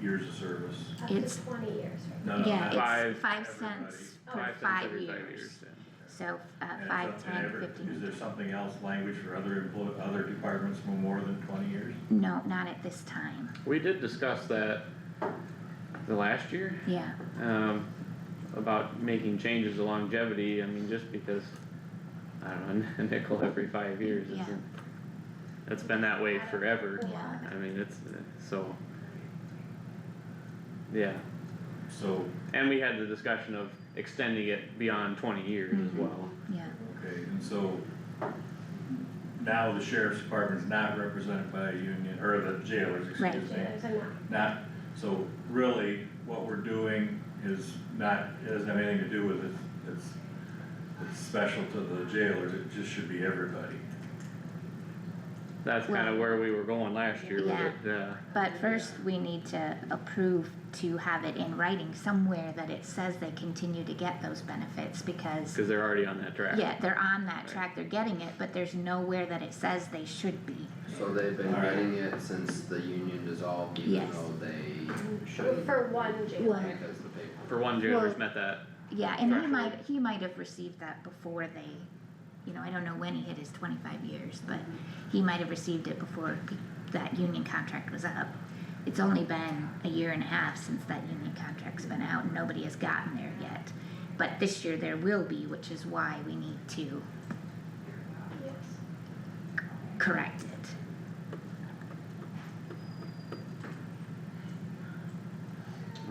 years of service. Up to It's- twenty years, No, no, Yeah, not it's Five, five everybody. cents Oh. for Five cents five every five years, yeah. so, uh, And five, if- and ten, ever- Is fifteen, there something else, language for other employ, other departments for more than twenty years? no, not at this time, We did discuss that the last year, yeah, um, about making changes to longevity, I mean, just because, I don't know, a nickel every five years Yeah. isn't, it's been that way forever, yeah, I mean, it's, uh, so. Yeah, So, and we had the discussion of extending it beyond twenty years as Mhm. well. yeah, okay, and so now the sheriff's department is not represented by a union, or the jailers, Right. excuse me. there's enough, Not, so really, what we're doing is not, it doesn't have anything to do with it, it's, it's special to the jailers, it just should be everybody. That's kinda Well- where we were going last year with Yeah. it, yeah, but first we need to approve to have it in writing somewhere that it says they continue to get those benefits, because cause they're already on that track. Yeah, they're on that Right. track, they're getting it, but there's nowhere that it says they should be. So they've been Alright. getting it since the union dissolved, even Yes. though they shouldn't, for one jail. Well- because the paper. For one, jailers Well- met that, Yeah, and he Right. might, he might have received that before they, you know, I don't know when he hit his twenty-five years, but he might have received it before pe- that union contract was up. It's only been a year and a half since that union contract's been out, and nobody has gotten there yet. But this year there will be, which is why we need to Yes. correct it.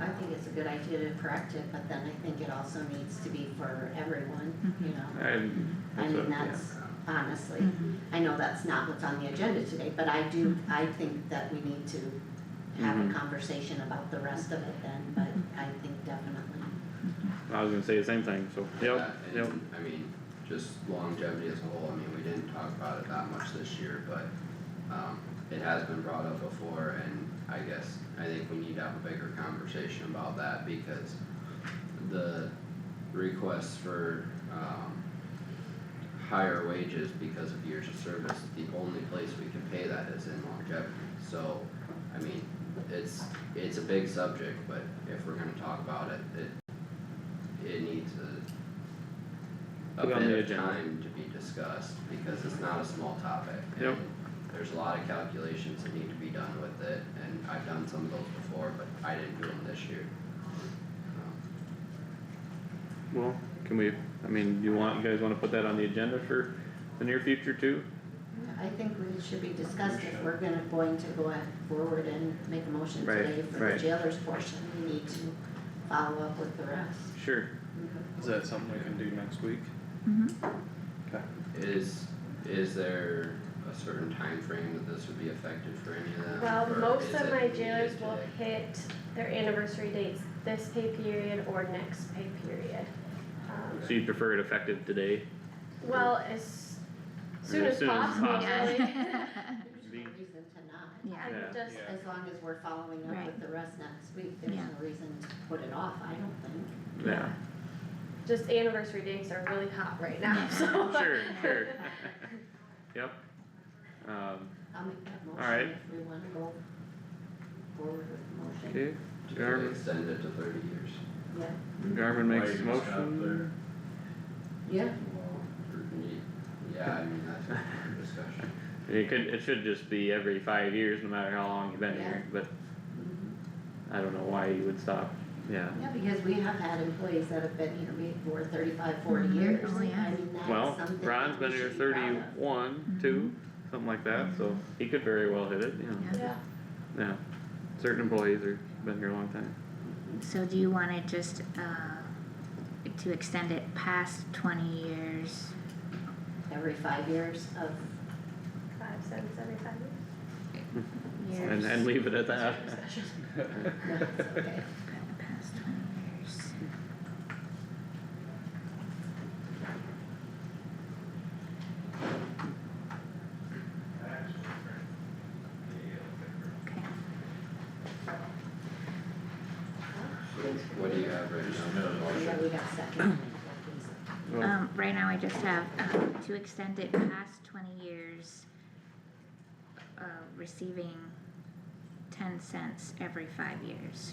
I think it's a good idea to correct it, but then I think it also needs to be for everyone, you know? and. I so, mean, yeah. that's honestly, Mhm. I know that's not what's on the agenda today, but I do, I think that we need to have a Mhm. conversation about the rest of it then, but I think definitely. I was gonna say the same thing, so, yep, that, yep, Uh, And, I mean, just longevity as a whole, I mean, we didn't talk about it that much this year, but, um, it has been brought up before, and I guess, I think we need to have a bigger conversation about that, because the requests for, um, higher wages because of years of service, the only place we can pay that is in longevity, so, I mean, it's, it's a big subject, but if we're gonna talk about it, it, it needs a a Put on the bit of agenda. time to be discussed, because it's not a small topic. Yep. and There's a lot of calculations that need to be done with it, and I've done some of those before, but I didn't do them this year. Um, well, can we, I mean, you want, you guys wanna put that on the agenda for the near future too? I think we should be discussed if we're gonna, going to go ahead forward and make a motion Right, today for the right. jailers portion, we need to follow up with the rest. Sure, Is that something we can do next week? Mhm. Is, is there a certain time frame that this would be effective for any of them? Well, or most is of it my needed jailers will today? hit their anniversary dates this pay period or next pay period. Um, so you prefer it effective today, Well, as soon as soon as possible, possible. really. There's Be- no reason to not. Yeah, Yeah. Just, Yeah. As long as we're following up Right. with the rest next week, there's Yeah. no reason to put it off, I don't think. yeah, just anniversary dates are really hot right now, so. sure, sure. Yep, um, I'll make that right. motion if we wanna go forward with the motion, okay, To Jarvis. extend it to thirty years. yeah, Garmin Why makes you a gonna stop motion, yeah, Yeah, I mean, that's a discussion. it could, it should just be every five years, no matter how long you've been Yeah. here, but mhm. Mm-hmm. I don't know why you would stop, yeah. Yeah, because we have had employees that have been here for thirty-five, forty Mhm. years, Oh, I yeah. mean, that's Well, something Ron's that been we here should be proud of. thirty-one, two, something like that, so he could very well hit it, you know, Yeah. Yeah, yeah, certain employees are, been here a long time. So do you wanna just, uh, to extend it past twenty years? Every five years of, five cents every five years. And, and leave it at that. no, it's okay. Past twenty years. Okay, What do you have right Just a now? minute. Yeah, we got second. Well, um, right now I just have, um, to extend it past twenty years, uh, receiving ten cents every five years.